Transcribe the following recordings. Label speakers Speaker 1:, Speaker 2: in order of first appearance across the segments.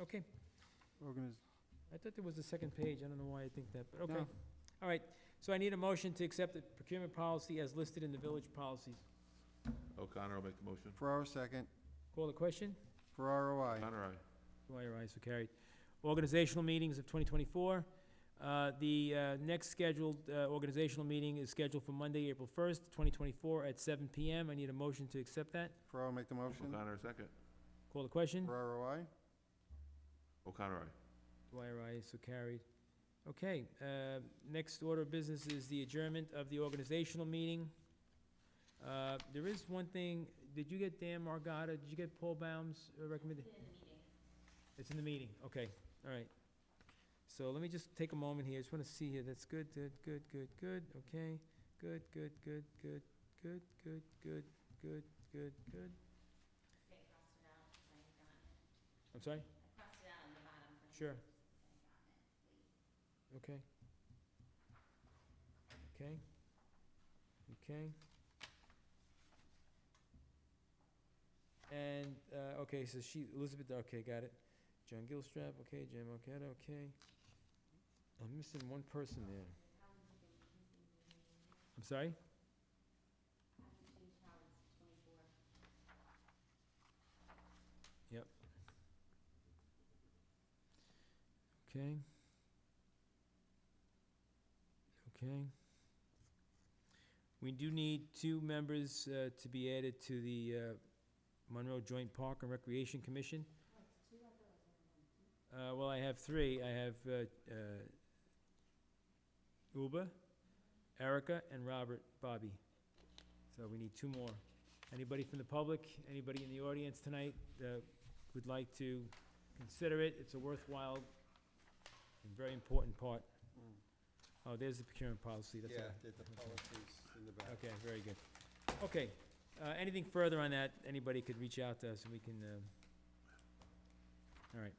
Speaker 1: Okay,
Speaker 2: Organiz-
Speaker 1: I thought there was a second page, I don't know why I think that, but okay.
Speaker 2: No.
Speaker 1: All right, so I need a motion to accept the procurement policy as listed in the village policies.
Speaker 3: O'Connor will make the motion.
Speaker 2: Ferraro second.
Speaker 1: Call the question?
Speaker 2: Ferraro, I.
Speaker 3: O'Connor, aye.
Speaker 1: Dwyer, aye, so carried. Organizational meetings of 2024. Uh, The uh, next scheduled uh, organizational meeting is scheduled for Monday, April 1st, 2024, at 7 PM. I need a motion to accept that.
Speaker 2: Ferraro make the motion.
Speaker 3: O'Connor, second.
Speaker 1: Call the question.
Speaker 2: Ferraro, I.
Speaker 3: O'Connor, aye.
Speaker 1: Dwyer, aye, so carried. Okay, uh, next order of business is the adjournment of the organizational meeting. Uh, There is one thing, did you get Dan Margada, did you get Paul Baum's recommendation? It's in the meeting, okay, all right. So let me just take a moment here, I just want to see here, that's good, good, good, good, good, okay, good, good, good, good, good, good, good, good, good, good. I'm sorry? Sure. Okay. Okay. Okay. And, uh, okay, so she, Elizabeth, okay, got it. John Gilstrap, okay, Jim Marqueta, okay. I'm missing one person there. I'm sorry? Yep. Okay. Okay. We do need two members uh, to be added to the uh, Monroe Joint Park and Recreation Commission. Uh, Well, I have three. I have uh, uh, Uba, Erica, and Robert Bobby. So we need two more. Anybody from the public, anybody in the audience tonight that would like to consider it? It's a worthwhile and very important part. Oh, there's the procurement policy, that's all.
Speaker 2: the
Speaker 1: policies
Speaker 2: in the
Speaker 1: Okay, very good. Okay, uh, anything further on that, anybody could reach out to us and we can, uh, all right.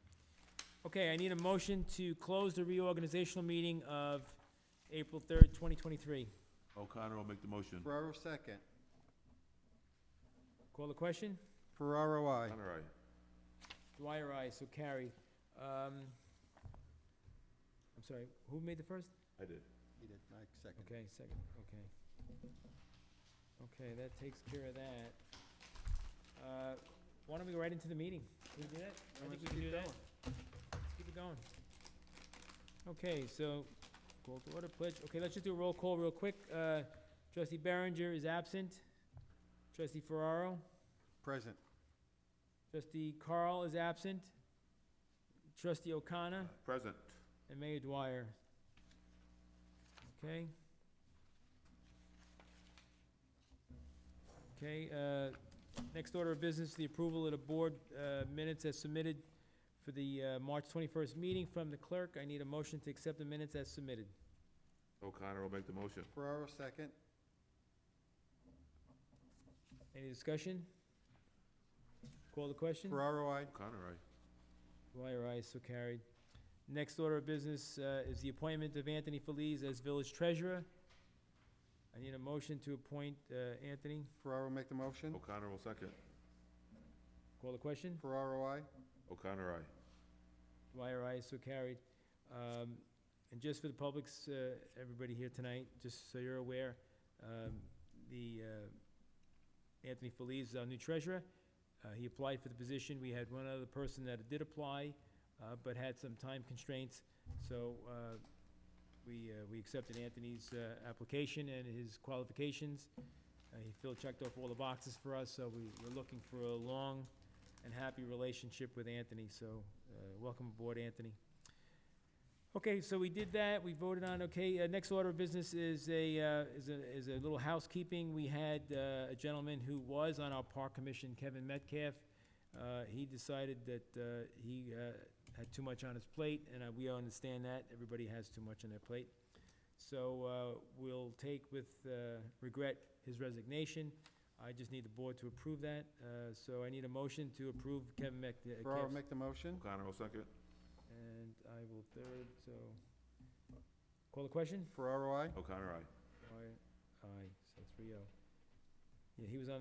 Speaker 1: Okay, I need a motion to close the reorganizational meeting of April third, twenty twenty-three.
Speaker 3: O'Connor will make the motion.
Speaker 2: Ferraro second.
Speaker 1: Call the question?
Speaker 2: Ferraro, I.
Speaker 3: O'Connor, aye.
Speaker 1: Dwyer, aye, so carried. Um, I'm sorry, who made the first?
Speaker 3: I did.
Speaker 2: He did, Mike second.
Speaker 1: Okay, second, okay. Okay, that takes care of that. Uh, Why don't we go right into the meeting? Can we do that? I
Speaker 2: Why don't
Speaker 1: think we
Speaker 2: you
Speaker 1: can
Speaker 2: keep
Speaker 1: do that. Let's keep it going. Okay, so, call to order pledge, okay, let's just do a roll call real quick. Uh, Trustee Berenger is absent. Trustee Ferraro,
Speaker 2: Present.
Speaker 1: trustee Carl is absent. Trustee O'Connor.
Speaker 3: Present.
Speaker 1: And Mayor Dwyer. Okay? Okay, uh, next order of business, the approval of the board uh, minutes as submitted for the uh, March 21st meeting from the clerk. I need a motion to accept the minutes as submitted.
Speaker 3: O'Connor will make the motion.
Speaker 2: Ferraro second.
Speaker 1: Any discussion? Call the question?
Speaker 2: Ferraro, I.
Speaker 3: O'Connor, aye.
Speaker 1: Dwyer, aye, so carried. Next order of business uh, is the appointment of Anthony Feliz as village treasurer. I need a motion to appoint uh, Anthony.
Speaker 2: Ferraro make the motion.
Speaker 3: O'Connor will second.
Speaker 1: Call the question?
Speaker 2: Ferraro, I.
Speaker 3: O'Connor, aye.
Speaker 1: Dwyer, aye, so carried. Um, And just for the public's, uh, everybody here tonight, just so you're aware, um, the, uh, Anthony Feliz is our new treasurer. Uh, He applied for the position. We had one other person that did apply, uh, but had some time constraints. So uh, we, uh, we accepted Anthony's uh, application and his qualifications. Uh, He filled, checked off all the boxes for us, so we, we're looking for a long, and happy relationship with Anthony, so uh, welcome aboard, Anthony. Okay, so we did that, we voted on, okay, uh, next order of business is a, uh, is a, is a little housekeeping. We had uh, a gentleman who was on our park commission, Kevin Metcalf. Uh, He decided that uh, he uh, had too much on his plate, and uh, we understand that, everybody has too much on their plate. So uh, we'll take with uh, regret his resignation. I just need the board to approve that, uh, so I need a motion to approve Kevin Mc, uh,
Speaker 2: Ferraro
Speaker 1: Kev's-
Speaker 2: make the motion.
Speaker 3: O'Connor will second.
Speaker 1: and I will third, so. Call the question?
Speaker 2: Ferraro, I.
Speaker 3: O'Connor, aye.
Speaker 1: Aye, aye, so three oh. Yeah, he was on the